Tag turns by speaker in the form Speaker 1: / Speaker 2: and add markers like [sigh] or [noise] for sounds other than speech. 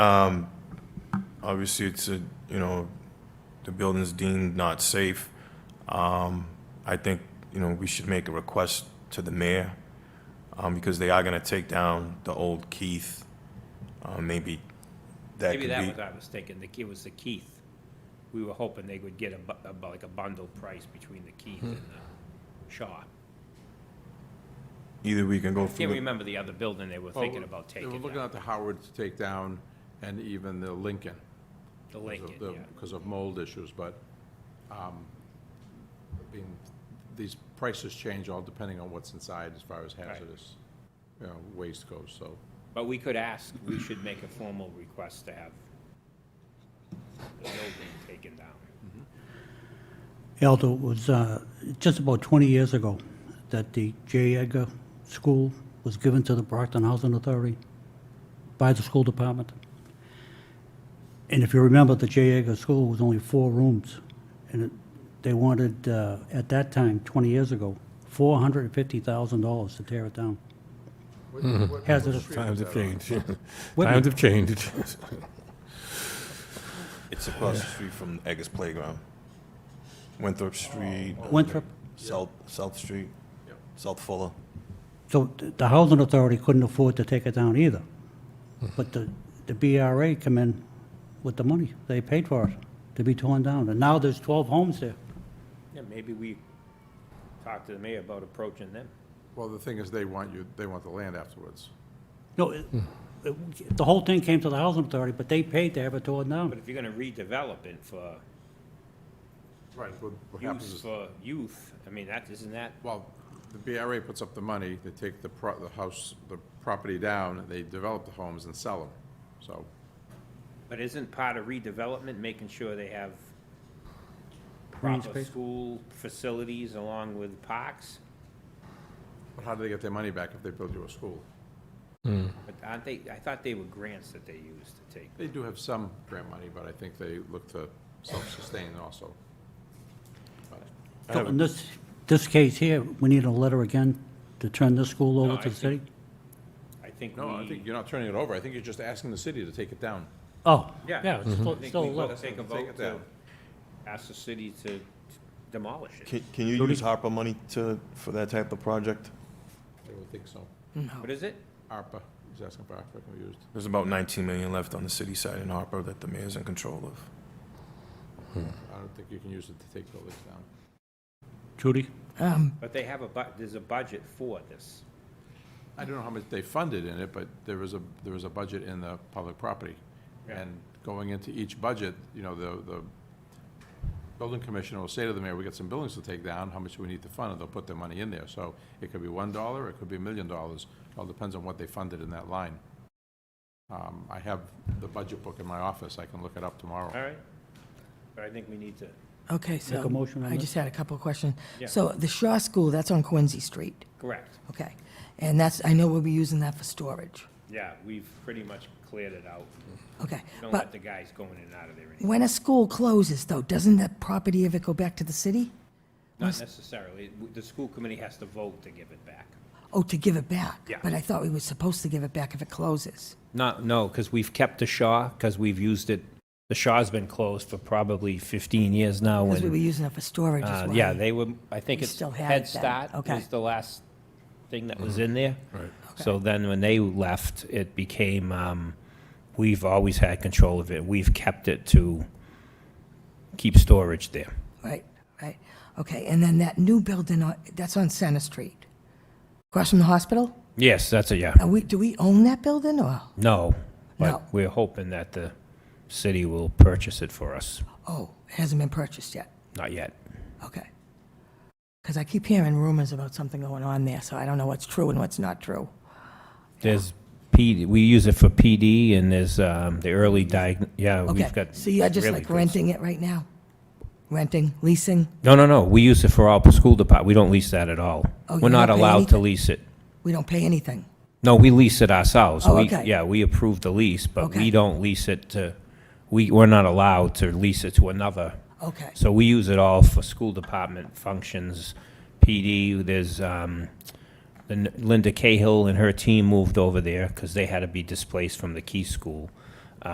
Speaker 1: Obviously, it's a, you know, the building's deemed not safe. Um, I think, you know, we should make a request to the mayor, um, because they are gonna take down the old Keith. Uh, maybe that could
Speaker 2: Maybe
Speaker 1: be.
Speaker 2: that was our mistake, and the key was the Keith. We were hoping they would get a bu- a, bu- like a bundle price between the
Speaker 3: Hmm.
Speaker 2: Keith and the Shaw.
Speaker 1: Either we can go through.
Speaker 2: Can't
Speaker 1: the-
Speaker 2: remember the other building they were
Speaker 3: Well,
Speaker 2: thinking about
Speaker 3: They
Speaker 2: taking
Speaker 3: were looking
Speaker 2: down,
Speaker 3: at the Howard to take down, and even the Lincoln.
Speaker 2: the Lincoln, yeah.
Speaker 3: Because of mold issues, but, um, being, these prices change all depending on what's inside as far as hazardous, you know, waste goes, so.
Speaker 2: But we could ask, we should make a formal request to have the building taken down.
Speaker 4: Aldo, it was uh, just about 20 years ago that the J. Edgar School was given to the Brockton Housing Authority by the school department. And if you remember, the J. Edgar School was only four rooms, and it- they wanted, uh, at that time, 20 years ago, $450,000 to tear it down. Hazardous.
Speaker 5: Times have changed.
Speaker 4: Whitman.
Speaker 5: Times have changed. [laughs]
Speaker 1: It's across the street from Eggers Playground. Winthrop Street.
Speaker 4: Winthrop.
Speaker 1: South, South Street, South Fuller.
Speaker 4: So th- the housing authority couldn't afford to take it down either. But the, the BRA come in with the money. They paid for it to be torn down. And now there's 12 homes there.
Speaker 2: Yeah, maybe we talk to the mayor about approaching them.
Speaker 3: Well, the thing is, they want you, they want the land afterwards.
Speaker 4: No, it- it- the whole thing came to the housing authority, but they paid to have it torn
Speaker 2: But
Speaker 4: down.
Speaker 2: if you're gonna redevelop it for
Speaker 3: Right. What what happens
Speaker 2: use
Speaker 3: is,
Speaker 2: for youth, I mean, that, isn't that,
Speaker 3: well, the BRA puts up the money, they take the pro, the house, the property down, and they develop the homes and sell them, so.
Speaker 2: but isn't part of redevelopment making sure they have
Speaker 4: Green
Speaker 2: proper
Speaker 4: space.
Speaker 2: school facilities along with parks?
Speaker 3: But how do they get their money back if they build you a school?
Speaker 2: But aren't they, I thought they were grants that they used to take.
Speaker 3: They do have some grant money, but I think they look to self-sustain also.
Speaker 1: I
Speaker 4: So
Speaker 1: have
Speaker 4: in this, this case here, we need a letter again to turn this school
Speaker 2: No,
Speaker 4: over
Speaker 2: I
Speaker 4: to the city?
Speaker 2: think- I think
Speaker 3: No, I think
Speaker 2: we,
Speaker 3: you're not turning it over. I think you're just asking the city to take it down.
Speaker 4: Oh,
Speaker 2: yeah. Mm-hmm.
Speaker 4: yeah, it's
Speaker 2: I
Speaker 4: still
Speaker 2: think
Speaker 4: still a
Speaker 2: we gotta
Speaker 4: letter.
Speaker 2: Take a
Speaker 3: Mm-hmm. Take
Speaker 2: vote
Speaker 3: it
Speaker 2: to
Speaker 3: down.
Speaker 2: ask the city to demolish it.
Speaker 1: Can, can you use Harper money to, for that type of project?
Speaker 3: They would think so.
Speaker 2: What is it?
Speaker 3: ARPA, he's asking for ARPA to be used.
Speaker 1: There's about 19 million left on the city side in Harper that the mayor's in control of.
Speaker 3: I don't think you can use it to take buildings down.
Speaker 4: Judy?
Speaker 2: But they have a bu, there's a budget for this.
Speaker 3: I don't know how much they funded in it, but there was a, there was a budget in the public property.
Speaker 2: Yeah.
Speaker 3: And going into each budget, you know, the, the building commissioner will say to the mayor, we got some buildings to take down, how much do we need to fund? And they'll put their money in there. So it could be one dollar, it could be a million dollars. All depends on what they funded in that line. Um, I have the budget book in my office. I can look it up tomorrow.
Speaker 2: All right? But I think we need to,
Speaker 6: Okay,
Speaker 4: a
Speaker 6: so
Speaker 4: motion on
Speaker 6: I
Speaker 4: that?
Speaker 6: just had a couple of questions.
Speaker 2: Yeah.
Speaker 6: So the Shaw School, that's on Quincy Street,
Speaker 2: correct.
Speaker 6: okay? And that's, I know we'll be using that for storage,
Speaker 2: Yeah, we've pretty much cleared it out.
Speaker 6: okay?
Speaker 2: Don't let
Speaker 6: But
Speaker 2: the guys going in and out of there anymore.
Speaker 6: when a school closes though, doesn't that property ever go back to the city?
Speaker 2: Not necessarily. W- The school committee has to vote to give it back.
Speaker 6: Oh, to give it back?
Speaker 2: Yeah.
Speaker 6: But I thought we were supposed to give it back if it closes.
Speaker 2: Not, no, because we've kept the Shaw, because we've used it, the Shaw's been closed for probably 15 years now.
Speaker 6: Because we
Speaker 2: and,
Speaker 6: were using it for storage
Speaker 2: uh,
Speaker 6: as well.
Speaker 2: Yeah, they were, I think
Speaker 6: We
Speaker 2: it's
Speaker 6: still had
Speaker 2: Head
Speaker 6: it then.
Speaker 2: Start
Speaker 6: Okay.
Speaker 2: was the last thing that was in there. Right. So then when they left, it became, um, we've always had control of it. We've kept it to keep storage there.
Speaker 6: Right, right. Okay, and then that new building, on- that's on Center Street, across from the hospital?
Speaker 2: Yes, that's a, yeah.
Speaker 6: Are we, do we own that building or?
Speaker 2: No.
Speaker 6: No.
Speaker 2: But we're hoping that the city will purchase it for us.
Speaker 6: Oh, it hasn't been purchased yet.
Speaker 2: Not yet.
Speaker 6: Okay. Because I keep hearing rumors about something going on there, so I don't know what's true and what's not true.
Speaker 2: There's PD, we use it for PD and there's um, the early diag, yeah,
Speaker 6: Okay,
Speaker 2: we've got.
Speaker 6: so you're just
Speaker 2: really
Speaker 6: like
Speaker 2: good-
Speaker 6: renting it right now? Renting, leasing?
Speaker 2: No, no, no, we use it for all school depart, we don't lease that at all.
Speaker 6: Oh,
Speaker 2: We're
Speaker 6: you
Speaker 2: not
Speaker 6: don't pay
Speaker 2: allowed to
Speaker 6: anything?
Speaker 2: lease it.
Speaker 6: We don't pay anything.
Speaker 2: No, we lease it ourselves.
Speaker 6: Oh,
Speaker 2: We-
Speaker 6: okay.
Speaker 2: Yeah, we approve the lease, but we
Speaker 6: Okay.
Speaker 2: don't lease it to, we, we're not allowed to lease it to another.
Speaker 6: Okay,
Speaker 2: So we use it all for school department functions, PD, there's, um, the N- Linda Cahill and her team moved over there because they had to be displaced from the Key School.